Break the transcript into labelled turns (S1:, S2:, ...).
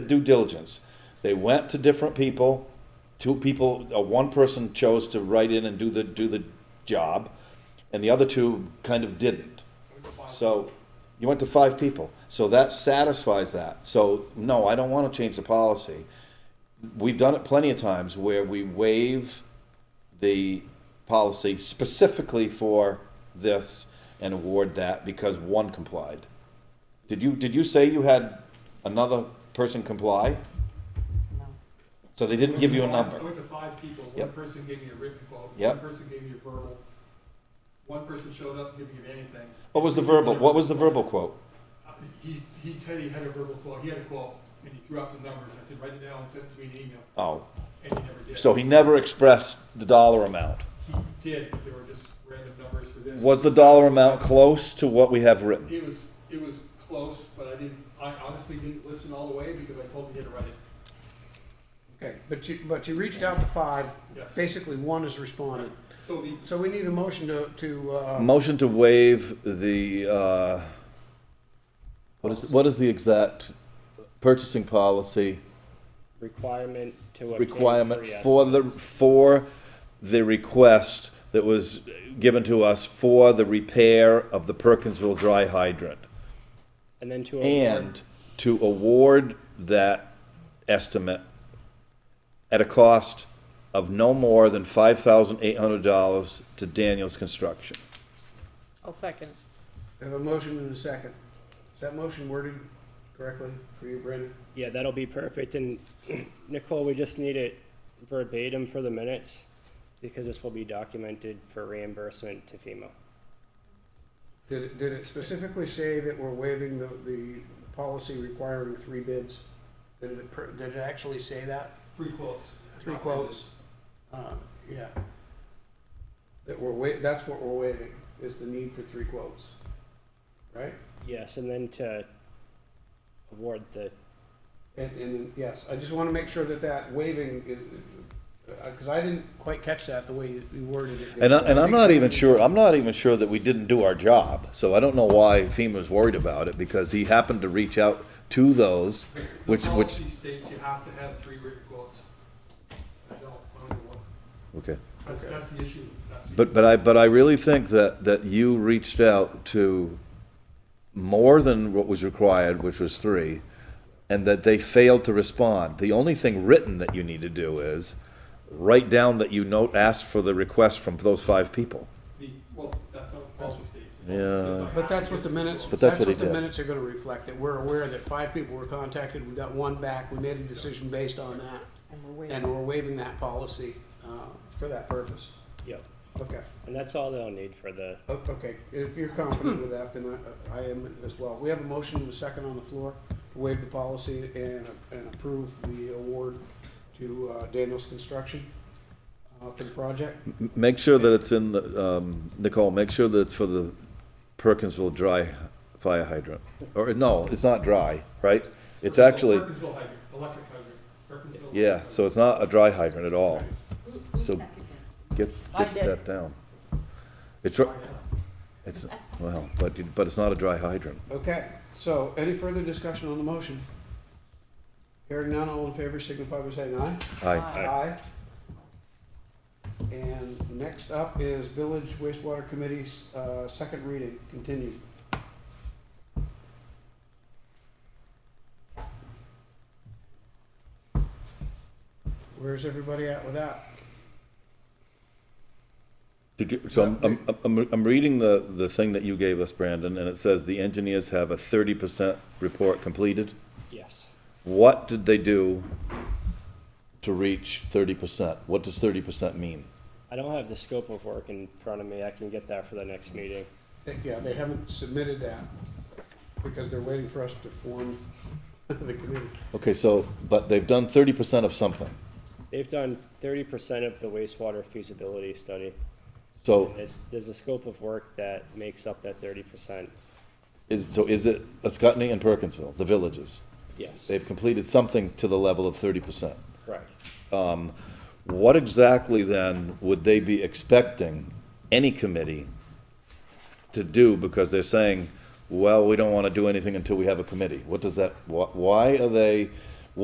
S1: due diligence. They went to different people, two people, uh, one person chose to write in and do the, do the job, and the other two kind of didn't. So, you went to five people, so that satisfies that. So, no, I don't wanna change the policy. We've done it plenty of times where we waive the policy specifically for this and award that because one complied. Did you, did you say you had another person comply?
S2: No.
S1: So they didn't give you a
S3: I
S1: number?
S3: went to five people, one
S1: Yep.
S3: person gave me a written quote, one
S1: Yep.
S3: person gave me a verbal, one person showed up and didn't give me anything.
S1: What was the verbal, what was the verbal quote?
S3: Uh, He, he said he had a verbal quote, he had a quote, and he threw out some numbers, I said, write it down, and send it to me in an email,
S1: Oh,
S3: and he never did.
S1: so he never expressed the dollar amount.
S3: He did, but there were just random numbers for this.
S1: Was the dollar amount close to what we have written?
S3: It was, it was close, but I didn't, I honestly didn't listen all the way because I told him he had to write it,
S4: Okay, but you, but you reached out to five,
S3: yes.
S4: basically one has responded.
S3: So the,
S4: So we need a motion to, to, uh,
S1: Motion to waive the, uh, what is, what is the exact purchasing policy
S5: requirement to obtain
S1: requirement
S5: three
S1: for the,
S5: estimates.
S1: for the request that was given to us for the repair of the Perkinsville dry hydrant?
S5: and then to award,
S1: and to award that estimate at a cost of no more than five thousand eight hundred dollars to Daniel's Construction.
S2: I'll second.
S4: have a motion and a second. Is that motion worded correctly for you, Brendan?
S5: yeah, that'll be perfect. And Nicole, we just need it verbatim for the minutes because this will be documented for reimbursement to FEMA.
S4: Did it, did it specifically say that we're waiving the, the policy requiring three bids? Did it, per- did it actually say that?
S3: three quotes.
S4: Three quotes? Uh, yeah. That we're wa, that's what we're waiving, is the need for three quotes. Right?
S5: Yes, and then to award the
S4: And, and, yes, I just want to make sure that that waiving, because I didn't quite catch that the way you you worded it.
S1: And I, and I'm not even sure, I'm not even sure that we didn't do our job, so I don't know why FEMA was worried about it, because he happened to reach out to those, which,
S3: The
S1: which,
S3: policy states you have to have three written quotes. I don't, I don't know what.
S1: okay.
S3: That's,
S4: Okay.
S3: that's the issue. That's the
S1: But, but I, but I really think that, that you reached out to more than what was required, which was three, and that they failed to respond. The only thing written that you need to do is write down that you note, asked for the request from those five people.
S3: The, well, that's not what the policy states. The
S1: Yeah.
S3: policy says I
S4: But
S3: have
S4: that's
S3: to
S4: what the
S3: get
S4: minutes,
S1: But
S3: approval.
S1: that's
S4: that's
S1: what he
S4: what the
S1: did.
S4: minutes are going to reflect, that we're aware that five people were contacted, we got one back, we made a decision based on that,
S2: And we're
S4: and
S2: waiting.
S4: we're waiving that policy uh, for that purpose.
S5: yep.
S4: Okay,
S5: And that's all they'll need for the
S4: O- Oh, okay, if you're confident with that, then I- I am as well. We have a motion and a second on the floor to waive the policy and and approve the award to uh, Daniels Construction uh, for the project.
S1: M- Make sure that it's in the, um, Nicole, make sure that it's for the Perkinsville dry fire hydrant. Or, no, it's not dry, right? It's
S3: Perkinsville-
S1: actually,
S3: Perkinsville hydrant, electric hydrant, Perkinsville
S1: yeah, so it's not a dry hydrant at all. So get,
S2: I
S1: get
S2: did.
S1: that down. It's, r- it's, well, but, you- but it's not a dry hydrant.
S4: Okay, so any further discussion on the motion? Hearing none, all in favor signify by saying aye.
S1: Aye.
S4: Aye. And next up is Village Wastewater Committee's uh, second reading, continued. Where's everybody at with that?
S1: Did you, so I'm, I'm, I'm, I'm reading the, the thing that you gave us, Brandon, and it says the engineers have a thirty percent report completed.
S5: yes.
S1: What did they do to reach thirty percent? What does thirty percent mean?
S5: I don't have the scope of work in front of me. I can get that for the next meeting.
S4: They- Yeah, they haven't submitted that because they're waiting for us to form the committee.
S1: Okay, so, but they've done thirty percent of something.
S5: They've done thirty percent of the wastewater feasibility study.
S1: So
S5: There's, there's a scope of work that makes up that thirty percent.
S1: is, so is it Ascutney and Perkinsville, the villages?
S5: Yes,
S1: They've completed something to the level of thirty percent.
S5: correct.
S1: What exactly then would they be expecting any committee to do? Because they're saying, well, we don't want to do anything until we have a committee. What does that, wh- why are they